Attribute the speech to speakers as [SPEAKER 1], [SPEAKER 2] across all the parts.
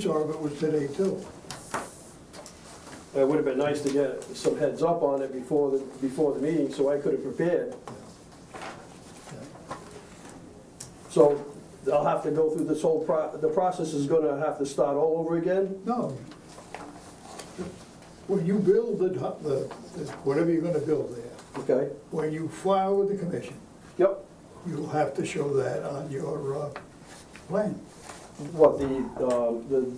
[SPEAKER 1] Sure, but it was today too.
[SPEAKER 2] It would have been nice to get some heads up on it before, the before the meeting, so I could have prepared. So I'll have to go through this whole, pro- the process is gonna have to start all over again?
[SPEAKER 1] No. When you build the, hu- the, whatever you're gonna build there,
[SPEAKER 2] Okay,
[SPEAKER 1] when you file with the commission,
[SPEAKER 2] yep.
[SPEAKER 1] you'll have to show that on your, uh, plan.
[SPEAKER 2] What, the, um,
[SPEAKER 1] The-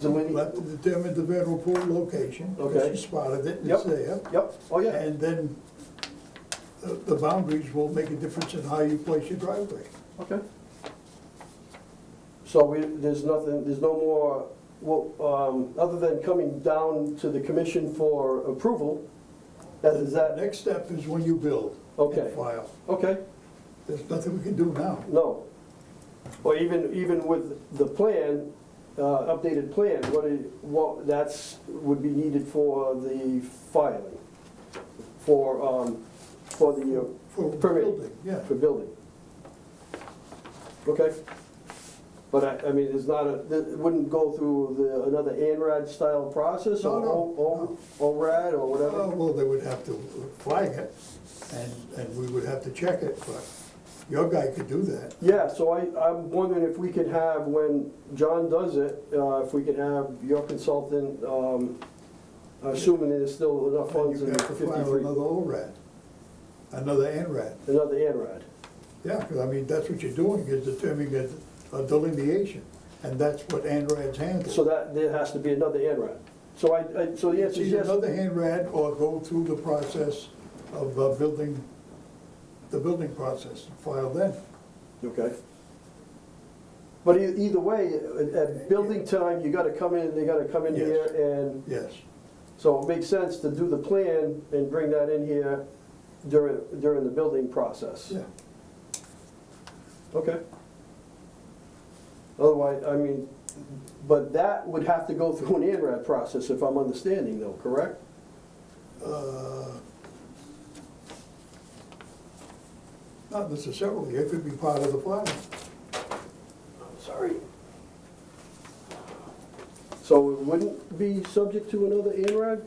[SPEAKER 2] the
[SPEAKER 1] Let
[SPEAKER 2] delineate?
[SPEAKER 1] to determine the vernal pool location, because
[SPEAKER 2] Okay.
[SPEAKER 1] you spotted it, and it's
[SPEAKER 2] Yep.
[SPEAKER 1] there.
[SPEAKER 2] Yep, oh yeah,
[SPEAKER 1] And then the, the boundaries will make a difference in how you place your driveway.
[SPEAKER 2] okay. So we, there's nothing, there's no more, well, um, other than coming down to the commission for approval, that is that,
[SPEAKER 1] Next step is when you build and
[SPEAKER 2] Okay.
[SPEAKER 1] file.
[SPEAKER 2] okay?
[SPEAKER 1] There's nothing we can do now.
[SPEAKER 2] No. Or even, even with the plan, uh, updated plan, what, it- what, that's, would be needed for the filing, for, um, for the, uh,
[SPEAKER 1] For
[SPEAKER 2] Permit.
[SPEAKER 1] building, yeah. Uh,
[SPEAKER 2] for building. Okay? But I, I mean, it's not a, it wouldn't go through the, another ANRAD-style process, or
[SPEAKER 1] No, no,
[SPEAKER 2] O- O- ORAD, or
[SPEAKER 1] Uh,
[SPEAKER 2] whatever?
[SPEAKER 1] Well, they would have to flag it, and, and we would have to check it, but your guy could do that.
[SPEAKER 2] Yeah, so I, I'm wondering if we could have, when John does it, uh, if we could have your consultant, um, assuming there's still
[SPEAKER 1] And
[SPEAKER 2] enough funds
[SPEAKER 1] you
[SPEAKER 2] in
[SPEAKER 1] have to file
[SPEAKER 2] fifty-three,
[SPEAKER 1] another ORAD, another ANRAD.
[SPEAKER 2] another ANRAD.
[SPEAKER 1] Yeah, because I mean, that's what you're doing, is determining a- a delineation, and that's what ANRADs handle.
[SPEAKER 2] So that, there has to be another ANRAD. So I, I, so the
[SPEAKER 1] It's
[SPEAKER 2] answer is
[SPEAKER 1] either
[SPEAKER 2] yes,
[SPEAKER 1] another ANRAD or go through the process of uh, building, the building process, file then.
[SPEAKER 2] okay. But e- either way, at, at building time, you gotta come in, they gotta come in
[SPEAKER 1] Yes.
[SPEAKER 2] here, and,
[SPEAKER 1] Yes,
[SPEAKER 2] so it makes sense to do the plan and bring that in here during, during the building process.
[SPEAKER 1] yeah.
[SPEAKER 2] Okay. Otherwise, I mean, but that would have to go through an ANRAD process, if I'm understanding though, correct?
[SPEAKER 1] Uh, Not necessarily, it could be part of the filing.
[SPEAKER 2] Sorry. So it wouldn't be subject to another ANRAD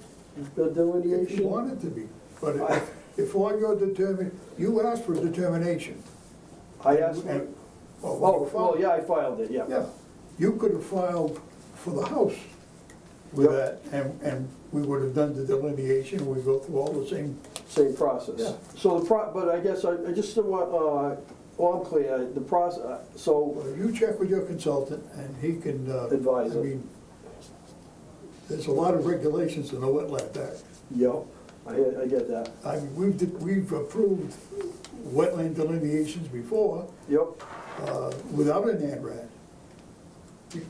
[SPEAKER 2] the
[SPEAKER 1] If you
[SPEAKER 2] delineation?
[SPEAKER 1] want it to be, but if- if all your determin, you asked for determination.
[SPEAKER 2] I asked,
[SPEAKER 1] and- well, when
[SPEAKER 2] oh,
[SPEAKER 1] you
[SPEAKER 2] well,
[SPEAKER 1] filed-
[SPEAKER 2] yeah, I filed it, yeah.
[SPEAKER 1] Yeah, you could have filed for the house with that,
[SPEAKER 2] Yep.
[SPEAKER 1] and, and we would have done the delineation, we go through all the same,
[SPEAKER 2] Same
[SPEAKER 1] Yeah.
[SPEAKER 2] process. So the pro, but I guess I, I just don't want, uh, well, I'm clear, the process, so,
[SPEAKER 1] you check with your consultant, and he can. uh,
[SPEAKER 2] Advise
[SPEAKER 1] I
[SPEAKER 2] it.
[SPEAKER 1] mean, There's a lot of regulations in the wetland act.
[SPEAKER 2] yeah, I, I get that.
[SPEAKER 1] I mean, we've, did- we've approved wetland delineations before
[SPEAKER 2] Yep,
[SPEAKER 1] uh, without an ANRAD.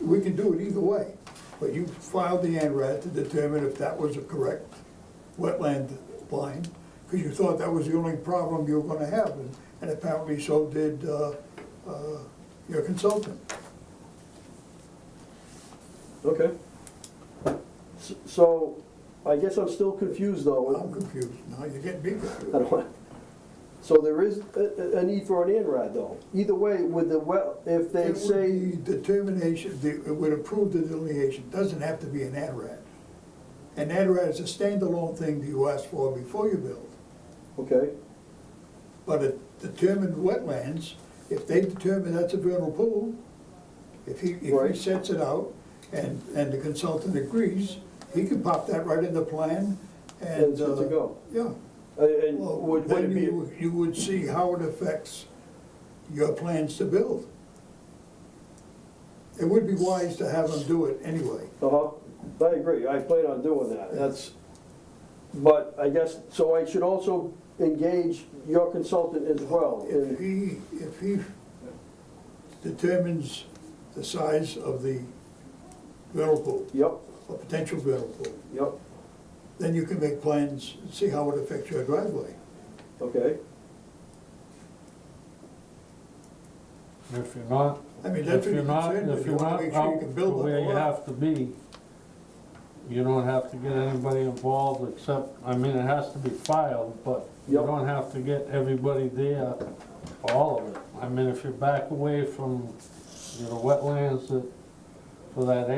[SPEAKER 1] We can do it either way, but you filed the ANRAD to determine if that was a correct wetland line, because you thought that was the only problem you were gonna have, and- and apparently so did uh, uh, your consultant.
[SPEAKER 2] okay. S- So, I guess I'm still confused though.
[SPEAKER 1] I'm confused, now you're getting me confused.
[SPEAKER 2] I don't want- So there is a, a- a need for an INRAD though. Either way, with the well, if they
[SPEAKER 1] It would
[SPEAKER 2] say,
[SPEAKER 1] be Determination, the- it would approve the delineation, doesn't have to be an ANRAD. An ANRAD is a standalone thing that you ask for before you build,
[SPEAKER 2] okay,
[SPEAKER 1] but it determined wetlands, if they determine that's a vernal pool, if he, if
[SPEAKER 2] Right.
[SPEAKER 1] he sets it out and, and the consultant agrees, he can pop that right in the plan and.
[SPEAKER 2] And it's good to
[SPEAKER 1] uh,
[SPEAKER 2] go.
[SPEAKER 1] Yeah.
[SPEAKER 2] and- and
[SPEAKER 1] Well,
[SPEAKER 2] would, would
[SPEAKER 1] then
[SPEAKER 2] it be,
[SPEAKER 1] you, you would see how it affects your plans to build. It would be wise to have them do it anyway.
[SPEAKER 2] uh-huh, I agree, I plan on doing that, that's, but I guess, so I should also engage your consultant as well.
[SPEAKER 1] If
[SPEAKER 2] and-
[SPEAKER 1] he, if he determines the size of the vernal pool,
[SPEAKER 2] Yep,
[SPEAKER 1] or potential vernal pool,
[SPEAKER 2] yep,
[SPEAKER 1] then you can make plans, and see how it affects your driveway.
[SPEAKER 2] okay,
[SPEAKER 3] If you're not,
[SPEAKER 1] I mean, that's what
[SPEAKER 3] if you're
[SPEAKER 1] you're
[SPEAKER 3] not,
[SPEAKER 1] concerned with,
[SPEAKER 3] if
[SPEAKER 1] you
[SPEAKER 3] you're
[SPEAKER 1] wanna
[SPEAKER 3] not
[SPEAKER 1] make sure you
[SPEAKER 3] out
[SPEAKER 1] can
[SPEAKER 3] to
[SPEAKER 1] build up a
[SPEAKER 3] where you
[SPEAKER 1] lot.
[SPEAKER 3] have to be, you don't have to get anybody involved except, I mean, it has to be filed, but you
[SPEAKER 2] Yep.
[SPEAKER 3] don't have to get everybody there, for all of it. I mean, if you back away from, you know, wetlands that, for that